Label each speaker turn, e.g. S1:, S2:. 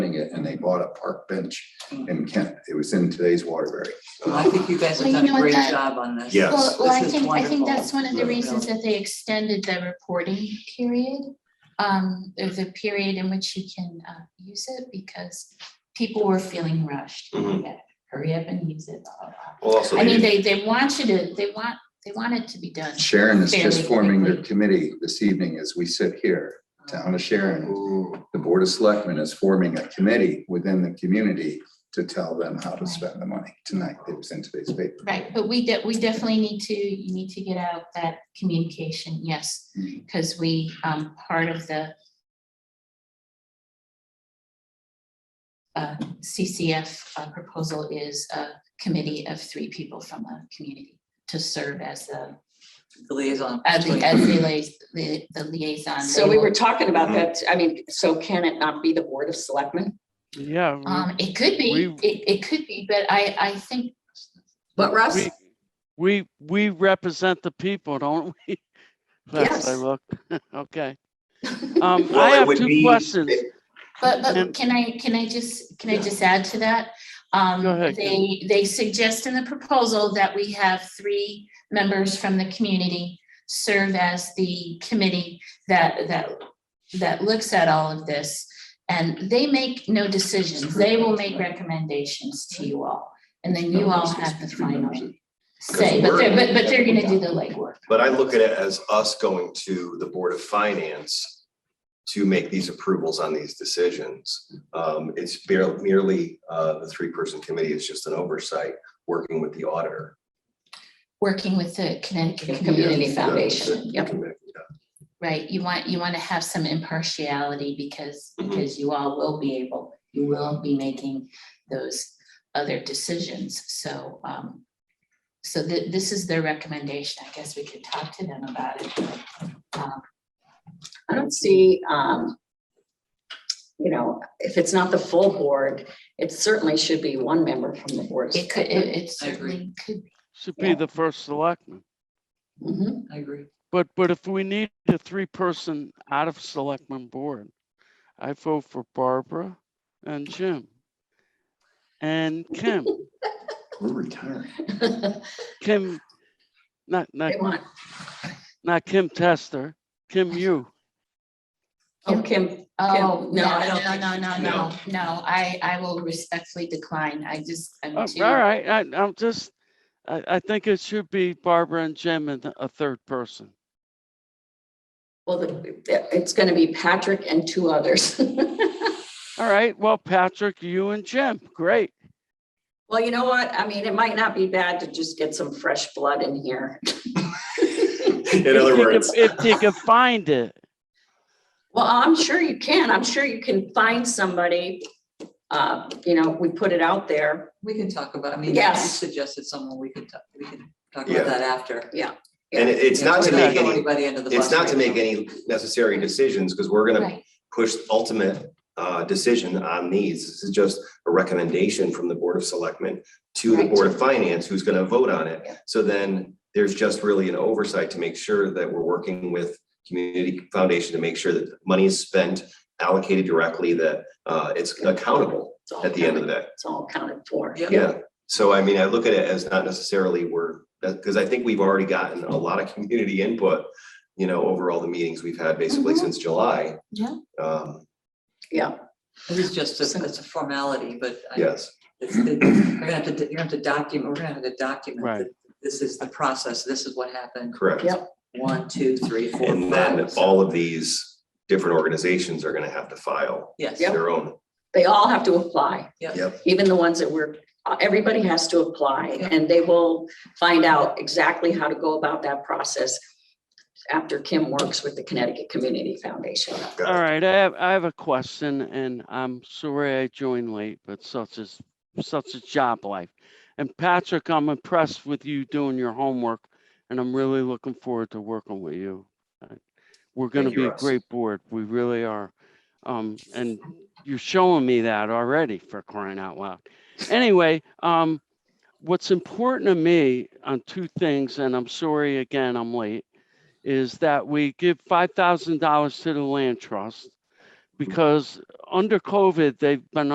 S1: area and they bought a park bench
S2: Mm.
S1: in Kent. It was in today's Waterbury.
S3: Well, I think you guys have
S2: Well, you
S3: done
S2: know
S3: a
S2: what
S3: great
S2: that-
S3: job on this. Uh,
S1: Yeah. Yes.
S2: Well, well, I
S3: This is
S2: think, I think
S3: wonderful.
S2: that's one of the
S3: Yeah.
S2: reasons that they extended the reporting period. Um, there's a period in which you can uh use it because people were feeling rushed.
S3: Mm-hmm.
S4: Mhm.
S2: Yeah, Hurry up and use it. blah, blah, blah.
S4: Well, also,
S2: I mean, they
S4: they-
S2: they want you to, they want, they want it to be done.
S1: Sharon is just
S2: Fairly
S1: forming their
S2: quickly.
S1: committee this evening as we sit here. Town of Sharon,
S4: Ooh,
S1: the Board of Selectmen is forming a committee within the community to tell them how to spend the money tonight. It was in today's paper.
S2: Right, but we de- we definitely need to, you need to get out that communication, yes,
S1: Mhm.
S2: because we, um, part of the uh, CCF uh, proposal is a committee of three people from the community to serve as the,
S3: The liaison.
S2: as the, as the liais- the the liaison.
S5: So we were talking about that, I mean, so can it not be the Board of Selectmen?
S6: Yeah, we-
S2: Um, it could be,
S6: we-
S2: it, it could be, but I, I think,
S5: But Russ,
S6: we, we, we represent the people, don't we? Last I
S5: Yes.
S6: looked, okay. Um, I
S4: Well, it
S6: have
S4: would
S6: two
S4: be-
S6: questions.
S2: but,
S6: And-
S2: but can I, can I just, can I just add to that? Um,
S6: Go ahead, Kim.
S2: they, they suggest in the proposal that we have three members from the community serve as the committee that, that, that looks at all of this. And they make no decisions. They will make recommendations to you all. And then you all have the final say, but they're, but, but they're gonna do the legwork.
S4: But I look at it as us going to the Board of Finance to make these approvals on these decisions. Um, it's bare- merely, uh, the three-person committee is just an oversight, working with the auditor.
S2: Working with the Connecticut
S5: Community
S2: Community
S5: Foundation,
S2: Foundation,
S5: yep.
S2: right? You want, you wanna have some impartiality because,
S5: Mm-hmm.
S4: Mhm.
S2: because you all will be able, you will be making those other decisions, so, um. So thi- this is their recommendation, I guess we could talk to them about it. Um,
S5: I don't see, um, you know, if it's not the full board, it certainly should be one member from the Board. of
S2: It could, it it certainly could, be.
S6: Should
S5: Yeah.
S6: be the first selectman.
S5: Selectmen.
S3: I agree.
S6: But, but if we need a three-person out of selectman board, I vote for Barbara and Jim. And Kim,
S1: We're retiring.
S5: Mhm.
S6: Kim, not, not,
S5: They want,
S6: not Kim Tester, Kim you.
S5: oh, Kim,
S2: oh,
S5: no,
S2: no,
S5: I don't
S2: no,
S5: think-
S2: no, no, no, no, I, I will respectfully decline, I just,
S6: Oh,
S2: I'm too.
S6: All right, I, I'm just, I, I think it should be Barbara and Jim and a third person.
S5: well, the- it's gonna be Patrick and two others.
S6: All right, well, Patrick, you and Jim, great.
S5: Well, you know what? I mean, it might not be bad to just get some fresh blood in here.
S4: In other
S6: If you could-
S4: words,
S6: If you can find it,
S5: Well, I'm sure you can. I'm sure you can find somebody. Uh, you know, we put it out there.
S3: We can talk about, I mean, you
S5: Yes.
S3: suggested someone, we could, talk- we can talk
S4: Yeah.
S3: about that after.
S4: and it- it's
S3: You know,
S4: not
S3: we
S4: to
S3: don't
S4: make
S3: throw
S4: any,
S3: anybody under the
S4: it's
S3: bus
S4: not to
S3: right
S4: make
S3: now.
S4: any necessary decisions, because we're gonna
S2: Right.
S4: push ultimate uh, decision on these. This is just a recommendation from the Board of Selectmen to the
S5: Right.
S4: Board of Finance, who's going to vote on it.
S5: Yeah.
S4: So then there's just really an oversight to make sure that we're working with Community Foundation to make sure that money is spent, allocated directly, that uh, it's accountable
S5: It's all
S4: at the end of the day.
S5: counted- It's all counted for.
S3: Yep.
S4: Yeah, so I mean, I look at it as not necessarily we're, because I think we've already gotten a lot of community input, you know, over all the meetings we've had basically
S2: Mhm.
S4: since July.
S2: Yeah.
S4: Um,
S5: Yeah,
S3: This is just, a- it's a formality, but I-
S4: yes.
S3: it's, it- we're gonna have to, you're gonna have to document, we're gonna have to document
S6: Right.
S3: that this is the process, this is what happened,
S4: Correct.
S5: Yep.
S3: one, two, three, four, five.
S4: And then
S3: so-
S4: all of these different organizations are gonna have to file
S3: Yes.
S5: Yep.
S4: their own.
S5: they all have to apply,
S3: Yep.
S4: Yep.
S5: even the ones that were, uh, everybody has to apply and they will find out exactly how to go about that process after Kim works with the Connecticut Community Foundation.
S6: all right, I have, I have a question and I'm sorry I joined late, but such is, such is job life. And Patrick, I'm impressed with you doing your homework and I'm really looking forward to working with you. Uh, We're gonna
S4: Thank you,
S6: be a
S4: Russ.
S6: great board, we really are. Um, and you're showing me that already for crying out loud. Anyway, um, what's important to me on two things, and I'm sorry again, I'm late, is that we give five thousand dollars to the land trust because under COVID, they've been